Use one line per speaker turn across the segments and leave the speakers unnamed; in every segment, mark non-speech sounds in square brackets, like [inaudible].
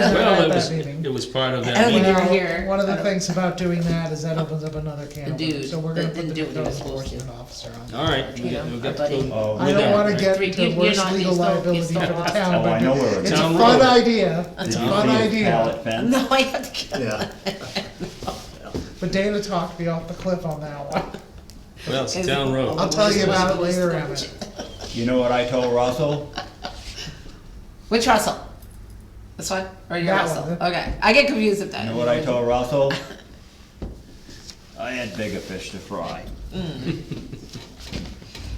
Well, it
that
was,
meeting.
it was part of that
Okay.
meeting.
they were
Well,
here.
One of the
I don't-
things about doing that is that opens up another can
The
of worms,
dude
so we're gonna
that
put the
didn't do what he
code
was supposed to.
enforcement officer on.
All right, we
You
got,
know,
we got
our
to go
buddy.
Oh.
with
I don't
that,
wanna
right?
get
Three-
into
you're- you're
worst
not-
legal
you still- you
liability for
still
the
lost.
town,
Oh, I know where
but it's
it's
a
Town
fun
road.
idea, it's a
Did you
fun
see a
idea.
Pallet
[laughs]
fence?
No, I have to get
Yeah,
But Dana talked me off the cliff on that
[laughs]
one.
Well, it's a town road.
I'll tell you
Well,
about it
it's-
later, Emmett.
You know what I told Russell?
Which Russell? This one or your
That
Russell?
one.
Okay, I get confused with that.
You know what I told Russell? I had bigger fish to fry.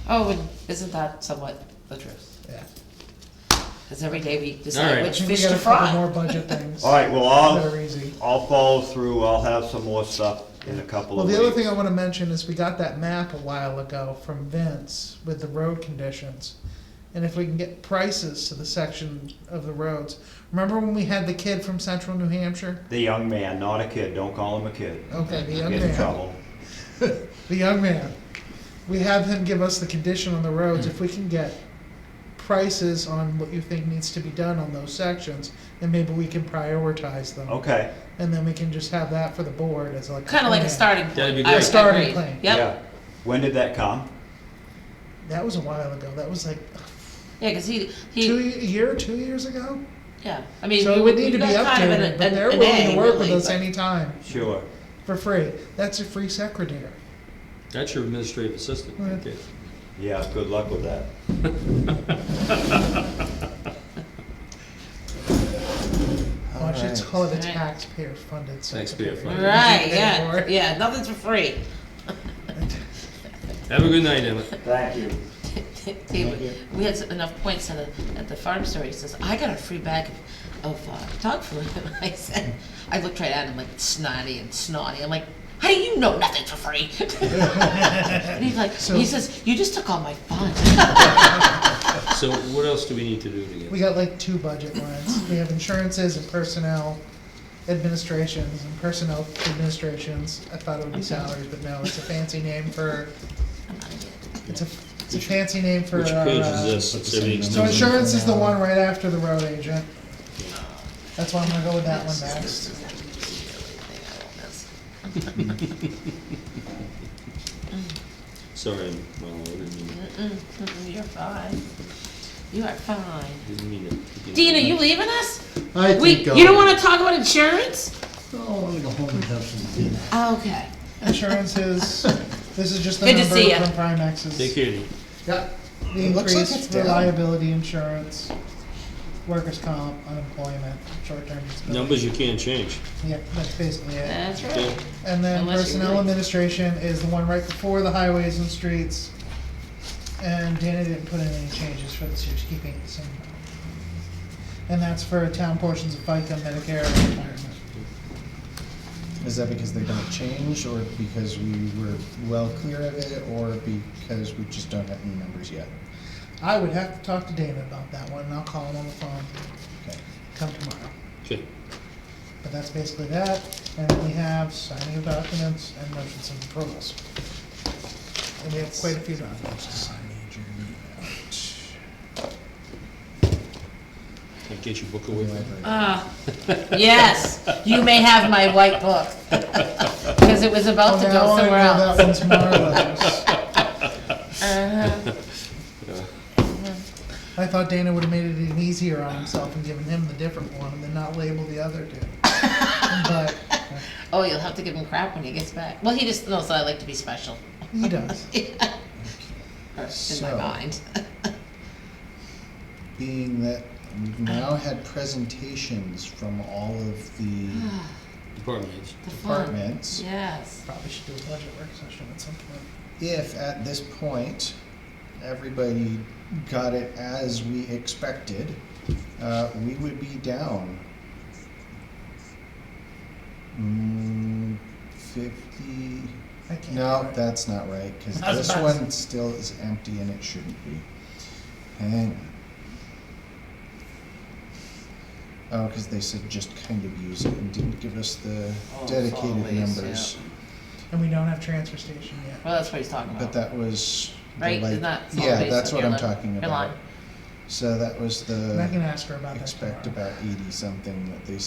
Oh, and isn't that somewhat the truth?
Yeah.
Because every day we
All
decide
right.
I
which
think we
fish
got
to
a couple
fry.
More budget things.
All right, well,
That are
I'll,
easy.
I'll follow through, I'll have some more stuff in a couple
Well,
of
the other thing
weeks.
I wanna mention is we got that map a while ago from Vince with the road conditions. And if we can get prices to the section of the roads. Remember when we had the kid from central New Hampshire?
The young man, not a kid, don't call him a kid.
Okay, Oh, the young
Get in
man,
trouble.
the young man. We have him give us the condition on the roads. If we can get prices on what you think needs to be done on those sections, then maybe we can prioritize them.
Okay,
And then we can just have that for the board as like. "Oh,
Kind of like a
plan.
starting point.
That'd be
I
great.
agree.
Starting point.
Yep.
yeah. When did that come?
That was a while ago. That was like
Yeah, because he
two,
he
ye- a year, or two years ago?
yeah. I mean,
So
we
it would need to
we
be
got kind of
updated,
an-
but
an-
they're
an
willing
A,
to work with
really,
us
but-
anytime
Sure.
for free. That's a free secretary.
That's your administrative assistant.
Right.
Okay.
Yeah, good luck with that.
Watch it's
Alright.
called a
Alright.
taxpayer funded secretary.
Taxpayer-funded.
[laughs]
Right.
Pay for
Yeah.
it.
Yeah. Nothing's for free.
Have a good night, Emmett.
Thank you.
David, we had enough points at the, at the farm store, he says, I got a free bag of, of uh, dog food, [laughs] and I said, I looked right at him like snotty and snotty, I'm like, how do you know nothing's for free? [laughs] And he's like,
So-
he says, you just took all my fun. [laughs]
So what else do we need to do to
We
get?
got like two budget lines. We have insurances and personnel administrations and personnel administrations. I thought it would be salaries, but no, it's a fancy name for,
I'm outta here.
it's a, it's a fancy name for.
Which
our,
page is
uh,
this? It's everything's
So
done.
insurance is the one right after the road agent. That's why I'm gonna go with that one next.
This is not gonna be everything I want this.
Sorry, I'm- well, I didn't mean,
Mm-mm, mm-mm, You're fine, you are fine.
didn't mean it.
Dean, are you leaving us?
I
We,
think. uh,
you don't wanna talk about insurance?
Oh, I'm gonna go home and have some dinner.
Okay.
Insurance is, this is just the
Good to
number
see ya.
from Primex's.
Take care, Dean.
Yeah.
The
It looks like it's
increased
down.
reliability insurance, workers' comp, unemployment, short-term disability.
Numbers you can't change.
Yeah, that's basically it.
That's
Okay.
right.
And then
Unless you
personnel
really-
administration is the one right before the highways and streets. And Dana didn't put in any changes for this year, she's keeping it the same. And that's for town portions of FICA, Medicare, and retirement.
Is that because they're gonna change, or because we were well clear of it, or because we just don't have any numbers yet?
I would have to talk to Dana about that one, and I'll call him on the phone,
Okay.
come tomorrow.
Okay.
But that's basically that, and then we have signing of documents and motions and approvals. And we have quite a few documents to sign.
I'll get your book away.
Ah, yes, you may have my white book. Because it was about to
Oh,
go somewhere else.
That one's Marlowe's.
Uh-huh.
I thought Dana would've made it even easier on himself and given him the different one and then not label the other
[laughs]
two. But
Oh, you'll have to give him crap when he gets back. Well, he just knows that I like to be special.
he does.
Or In my
So-
mind.
Being that we've now had presentations from all of the
Ah,
Department heads.
The fun.
departments.
Yes.
Probably should do a budget work session at some point.
if at this point everybody got it as we expected, uh, we would be down mm, 50.
I can't.
No, that's not right because
That's
this
fine.
one still is empty and it shouldn't be. Hang on. Oh, because they said just kind of use it and didn't give us the
Oh,
dedicated
solid waste,
numbers.
And we don't have transfer station yet.
Well, that's what he's talking
But
about.
that was. the
Right?
light-
Isn't that solid
Yeah,
waste
that's
on
what
your
I'm
line-
talking
your
about.
line?
So that was
And I can
the,
ask her about that
expect
tomorrow.
about eighty-something that they